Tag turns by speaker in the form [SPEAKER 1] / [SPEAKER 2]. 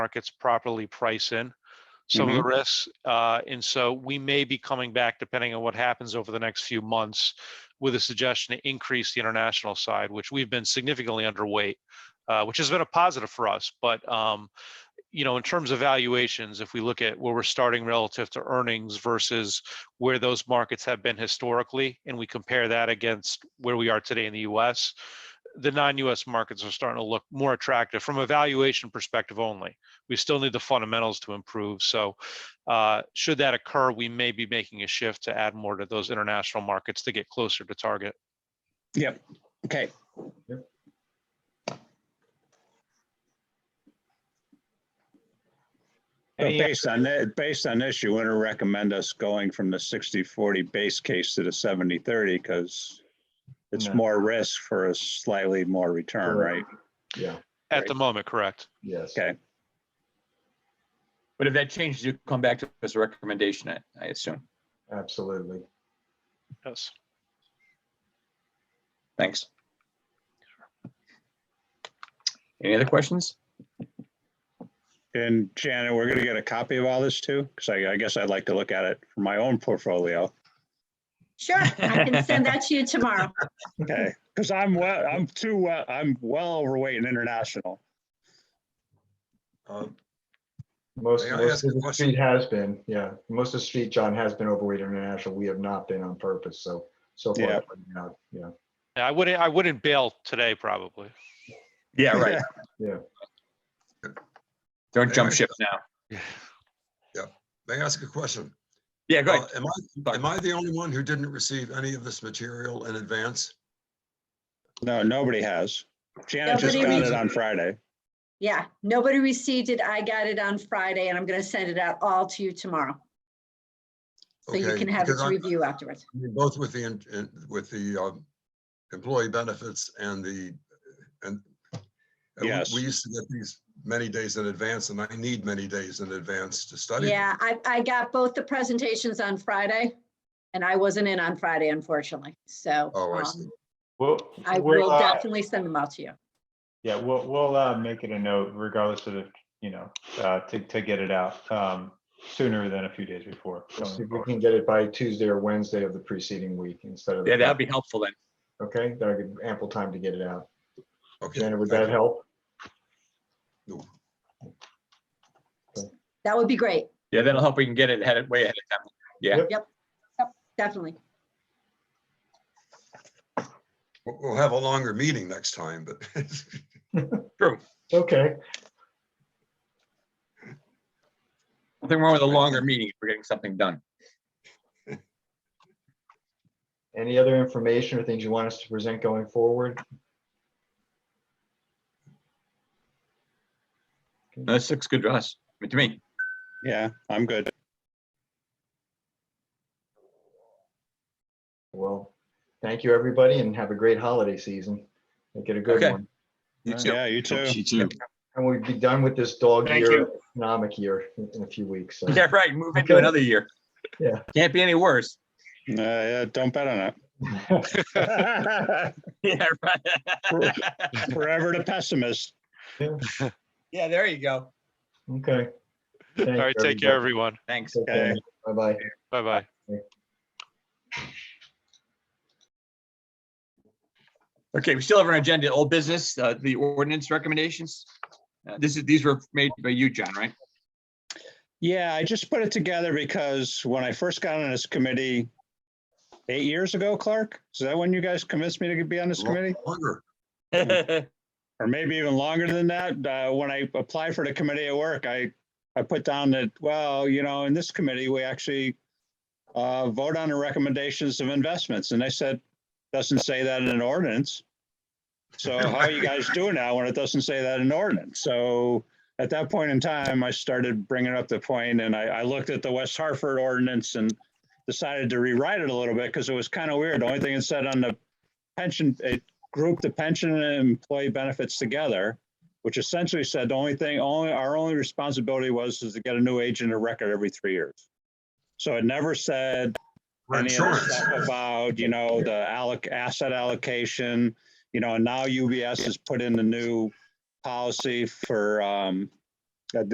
[SPEAKER 1] markets properly price in some of the risks. Uh, and so we may be coming back, depending on what happens over the next few months, with a suggestion to increase the international side, which we've been significantly underweight, uh, which has been a positive for us. But um, you know, in terms of valuations, if we look at where we're starting relative to earnings versus where those markets have been historically, and we compare that against where we are today in the U.S., the non-U.S. markets are starting to look more attractive from a valuation perspective only. We still need the fundamentals to improve. So, uh, should that occur, we may be making a shift to add more to those international markets to get closer to target.
[SPEAKER 2] Yep. Okay. But
[SPEAKER 3] Any-
[SPEAKER 2] based on that, based on this, you wouldn't recommend us going from the 60-40 base case to the 70-30 because it's
[SPEAKER 3] No.
[SPEAKER 2] more risk for a slightly more return, right?
[SPEAKER 4] Correct. Yeah,
[SPEAKER 1] At the moment, correct?
[SPEAKER 4] yes.
[SPEAKER 2] Okay.
[SPEAKER 5] But if that changes, you come back to us a recommendation, I- I assume.
[SPEAKER 4] Absolutely.
[SPEAKER 1] Yes.
[SPEAKER 5] Thanks. Any other questions?
[SPEAKER 2] And Janet, we're gonna get a copy of all this too, because I, I guess I'd like to look at it for my own portfolio.
[SPEAKER 6] Sure, I can send that to you tomorrow.
[SPEAKER 2] Okay, because I'm well, I'm too, well- I'm well overweight in international.
[SPEAKER 7] Um,
[SPEAKER 4] Most,
[SPEAKER 7] May I
[SPEAKER 4] most
[SPEAKER 7] ask a
[SPEAKER 4] of the
[SPEAKER 7] question?
[SPEAKER 4] street has been, yeah, most of the street, John, has been overweight international. We have not been on purpose, so, so
[SPEAKER 2] Yeah.
[SPEAKER 4] far, not, yeah.
[SPEAKER 1] Yeah, I wouldn't, I wouldn't bail today, probably.
[SPEAKER 5] Yeah,
[SPEAKER 2] right.
[SPEAKER 4] Yeah.
[SPEAKER 5] Don't jump ship now.
[SPEAKER 7] May I ask a question?
[SPEAKER 5] Yeah, go
[SPEAKER 7] Uh,
[SPEAKER 5] ahead.
[SPEAKER 7] Am I, am I the only one who didn't receive any of this material in advance?
[SPEAKER 2] No, nobody has. Janet just
[SPEAKER 7] Nobody
[SPEAKER 2] got
[SPEAKER 7] reads
[SPEAKER 2] it
[SPEAKER 7] it.
[SPEAKER 2] on Friday.
[SPEAKER 6] Yeah, nobody received it. I got it on Friday and I'm going to send it out all to you tomorrow. So you
[SPEAKER 7] Okay,
[SPEAKER 6] can have it
[SPEAKER 7] because
[SPEAKER 6] to
[SPEAKER 7] I'm-
[SPEAKER 6] review afterwards.
[SPEAKER 7] I mean, Both with the, in- in- with the um, employee benefits and the, and and we-
[SPEAKER 2] Yes.
[SPEAKER 7] we used to get these many days in advance, and I need many days in advance to study. them.
[SPEAKER 6] Yeah, I, I got both the presentations on Friday and I wasn't in on Friday, unfortunately. So
[SPEAKER 7] Oh, I
[SPEAKER 6] um,
[SPEAKER 7] see.
[SPEAKER 3] Well,
[SPEAKER 6] I
[SPEAKER 3] we'll,
[SPEAKER 6] will
[SPEAKER 3] uh,
[SPEAKER 6] definitely send them out to you.
[SPEAKER 3] Yeah, we'll, we'll uh, make it a note regardless of, the- you know, uh, to, to get it out um, sooner than a few days before.
[SPEAKER 4] We'll see
[SPEAKER 3] going
[SPEAKER 4] if we
[SPEAKER 3] forward.
[SPEAKER 4] can get it by Tuesday or Wednesday of the preceding week instead of. the
[SPEAKER 5] Yeah, that'd
[SPEAKER 4] Friday,
[SPEAKER 5] be helpful then.
[SPEAKER 4] Okay, that'll give ample time to get it out.
[SPEAKER 7] Okay.
[SPEAKER 4] Janet, would
[SPEAKER 7] thank
[SPEAKER 4] that
[SPEAKER 7] you.
[SPEAKER 4] help?
[SPEAKER 7] No.
[SPEAKER 6] That would be great,
[SPEAKER 5] Yeah, that'll help. We can get it ahead, of- way ahead of time.
[SPEAKER 6] definitely.
[SPEAKER 7] We'll we'll have a longer meeting next time, but
[SPEAKER 4] Okay,
[SPEAKER 5] Nothing wrong with a longer meeting if we're getting something done.
[SPEAKER 4] any other information or things you want us to present going forward?
[SPEAKER 5] This looks good to us, I mean, to me.
[SPEAKER 2] Yeah, I'm good.
[SPEAKER 4] Well, thank you, everybody, and have a great holiday season. Make it a good
[SPEAKER 5] Okay.
[SPEAKER 4] one.
[SPEAKER 5] You too.
[SPEAKER 2] Yeah, you too.
[SPEAKER 4] And we'll be done with this dog
[SPEAKER 3] Thank
[SPEAKER 4] year,
[SPEAKER 3] you.
[SPEAKER 4] economic year in- in a few weeks. so.
[SPEAKER 5] Yeah, right. Move into
[SPEAKER 4] Okay.
[SPEAKER 5] another year.
[SPEAKER 4] Yeah.
[SPEAKER 5] Can't be any worse.
[SPEAKER 2] Uh, yeah, don't bet on it.
[SPEAKER 5] Yeah, right.
[SPEAKER 2] Forever the pessimist.
[SPEAKER 5] Yeah, there you go.
[SPEAKER 4] Okay.
[SPEAKER 1] All right, take care, everyone.
[SPEAKER 5] Thanks.
[SPEAKER 2] Okay.
[SPEAKER 4] Bye bye.
[SPEAKER 1] Bye-bye.
[SPEAKER 5] Okay, we still have our agenda, old business, uh, the ordinance recommendations. Uh, This is, these were made by you, John, right?
[SPEAKER 2] Yeah, I just put it together because when I first got on this committee eight years ago, Clark, is that when you guys convinced me to be on this committee?
[SPEAKER 7] longer.
[SPEAKER 2] Or maybe even longer than that, uh, when I applied for the committee at work, I, I put down that, well, you know, in this committee, we actually uh, vote on the recommendations of investments, and they said, doesn't say that in an ordinance. So how are you guys doing now when it doesn't say that in ordinance? So at that point in time, I started bringing up the point, and I, I looked at the West Hartford ordinance and decided to rewrite it a little bit, because it was kind of weird. The only thing it said on the pension, it grouped the pension and employee benefits together, which essentially said the only thing, only, our only responsibility was is to get a new agent of record every three years. So it never said
[SPEAKER 7] We're
[SPEAKER 2] any other
[SPEAKER 7] insurance.
[SPEAKER 2] stuff about, you know, the alloc, asset allocation, you know, and now UBS has put in the new policy for, um,